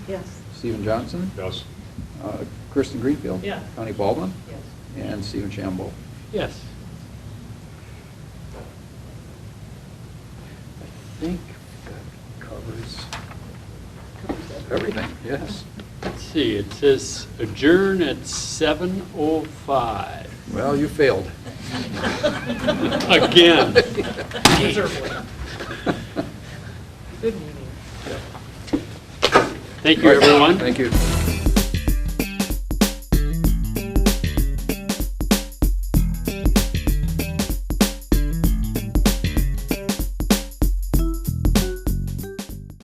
Yes. Stephen Johnson, Yes. uh, Kirsten Greenfield. Yeah. Connie Baldwin, Yes. and Stephen Shambo. Yes. I think that covers everything, yes. Let's see, it says adjourn at 7:05. Well, you failed. Again. Good meeting. Thank you, everyone. Thank you.